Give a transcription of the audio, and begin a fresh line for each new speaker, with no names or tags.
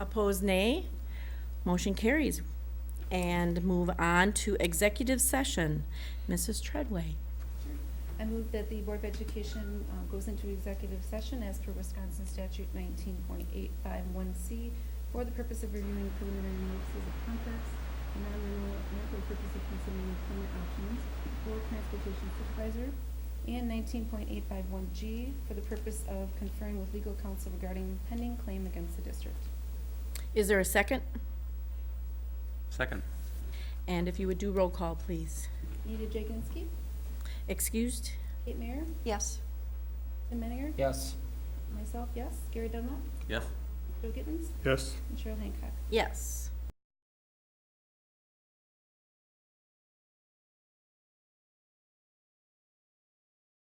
Opposed, nay. Motion carries. And move on to executive session. Mrs. Treadway.
I move that the Board of Education uh, goes into executive session as per Wisconsin Statute 19.851C for the purpose of reviewing preliminary notices of contracts, and non-renewal, and for the purpose of considering employment options for transportation supervisor, and 19.851G for the purpose of conferring with legal counsel regarding pending claim against the district.
Is there a second?
Second.
And if you would do roll call, please.
Anita Jaganski?
Excused?
Kate Mayer?
Yes.
Tim Menninger?
Yes.
Myself, yes. Gary Dunlap?
Yes.
Joe Gittens?
Yes.
And Cheryl Hancock.
Yes.